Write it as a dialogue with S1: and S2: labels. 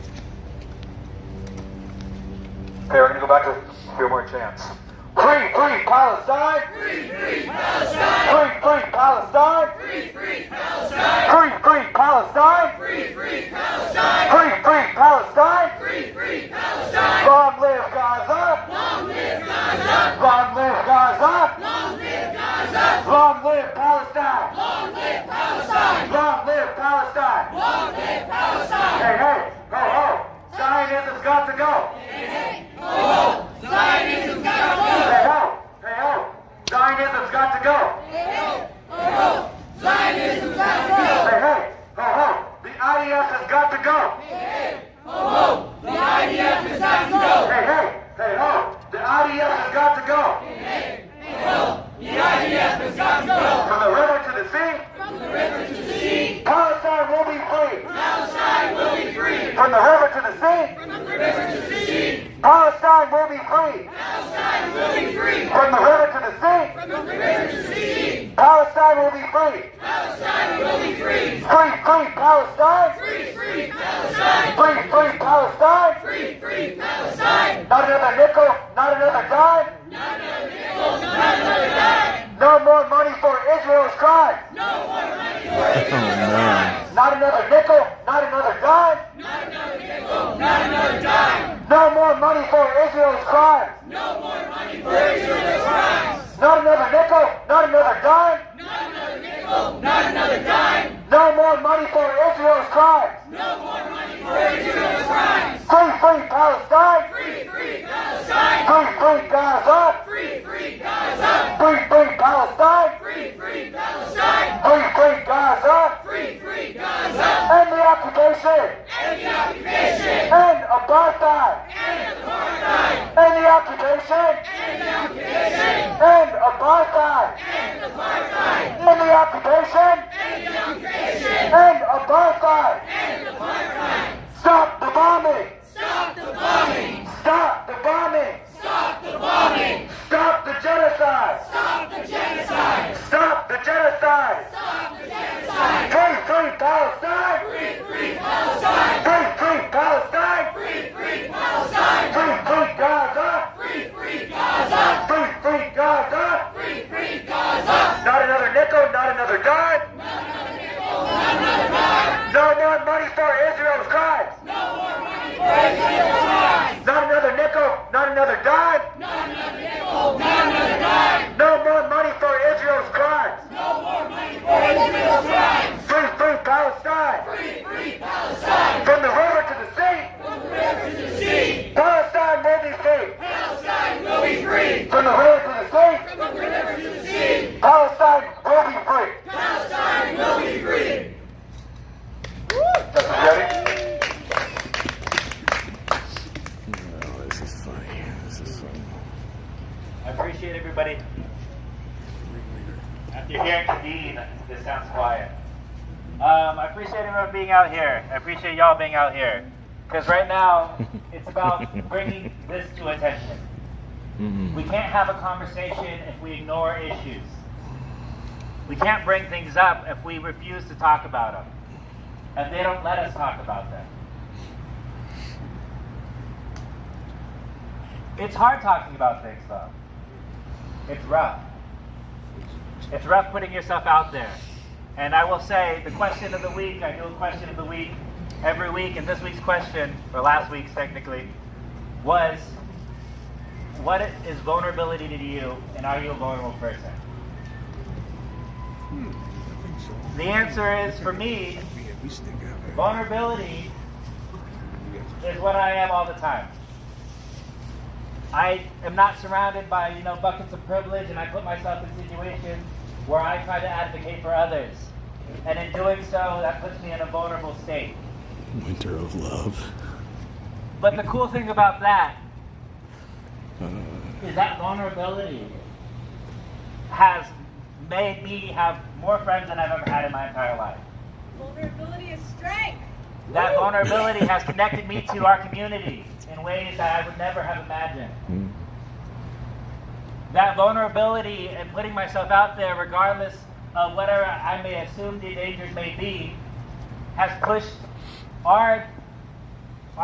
S1: Battlefield more chance. Free, free Palestine! Free, free Palestine! Free, free Palestine! Free, free Palestine! Free, free Palestine! Free, free Palestine! Free, free Palestine! Long live Gaza! Long live Gaza! Long live Palestine! Long live Palestine! Long live Palestine! Hey, hey, ho, ho! Zionism's got to go! Hey ho! Hey ho! Zionism's got to go! Hey ho! Hey ho! Zionism's got to go! Hey hey! Ho ho! The IDF has got to go! Hey ho! The IDF has got to go! Hey hey! Hey ho! The IDF has got to go! Hey hey! Ho ho! The IDF has got to go! From the river to the sea! From the river to the sea! Palestine will be free! Palestine will be free! From the river to the sea! From the river to the sea! Palestine will be free! From the river to the sea. From the river to the sea. Palestine will be free. Palestine will be free. Free, free Palestine. Free, free Palestine. Free, free Palestine. Free, free Palestine. Not another nickel, not another dime. Not another nickel, not another dime. No more money for Israel's crimes.
S2: Oh man.
S1: Not another nickel, not another dime. Not another nickel, not another dime. No more money for Israel's crimes. No more money for Israel's crimes. Not another nickel, not another dime. Not another nickel, not another dime. No more money for Israel's crimes. No more money for Israel's crimes. Free, free Palestine. Free, free Palestine. Free, free Gaza. Free, free Gaza. Free, free Palestine. Free, free Palestine. Free, free Gaza. And the occupation. And the occupation. And apartheid. And apartheid. And the occupation. And the occupation. And apartheid. And apartheid. And the occupation. And the occupation. And apartheid. And apartheid. Stop the bombing. Stop the bombing. Stop the bombing. Stop the bombing. Stop the genocide. Stop the genocide. Stop the genocide. Free, free Palestine. Free, free Palestine. Free, free Palestine. Free, free Palestine. Free, free Gaza. Free, free Gaza. Free, free Gaza. Free, free Gaza. Not another nickel, not another dime. Not another nickel, not another dime. No more money for Israel's crimes. No more money for Israel's crimes. Not another nickel, not another dime. Not another nickel, not another dime. No more money for Israel's crimes. Free, free Palestine! Free, free Palestine! From the river to the sea! From the river to the sea! Palestine will be free! Palestine will be free! From the river to the sea! From the river to the sea! Palestine will be free! Palestine will be free! Ready?
S2: Oh, this is funny. This is funny.
S3: I appreciate everybody. After hearing the Dean, this sounds quiet. Um, I appreciate everyone being out here. I appreciate y'all being out here. Because right now, it's about bringing this to attention. We can't have a conversation if we ignore issues. We can't bring things up if we refuse to talk about them. If they don't let us talk about them. It's hard talking about things, though. It's rough. It's rough putting yourself out there. And I will say, the question of the week, I do a question of the week every week, and this week's question, or last week's technically, was what is vulnerability to you, and are you a vulnerable person? The answer is for me, vulnerability is what I am all the time. I am not surrounded by, you know, buckets of privilege and I put myself in situations where I try to advocate for others. And in doing so, that puts me in a vulnerable state.
S2: Winter of love.
S3: But the cool thing about that is that vulnerability has made me have more friends than I've ever had in my entire life.
S4: Vulnerability is strength.
S3: That vulnerability has connected me to our community in ways that I would never have imagined. That vulnerability and putting myself out there, regardless of whatever I may assume the dangers may be, has pushed our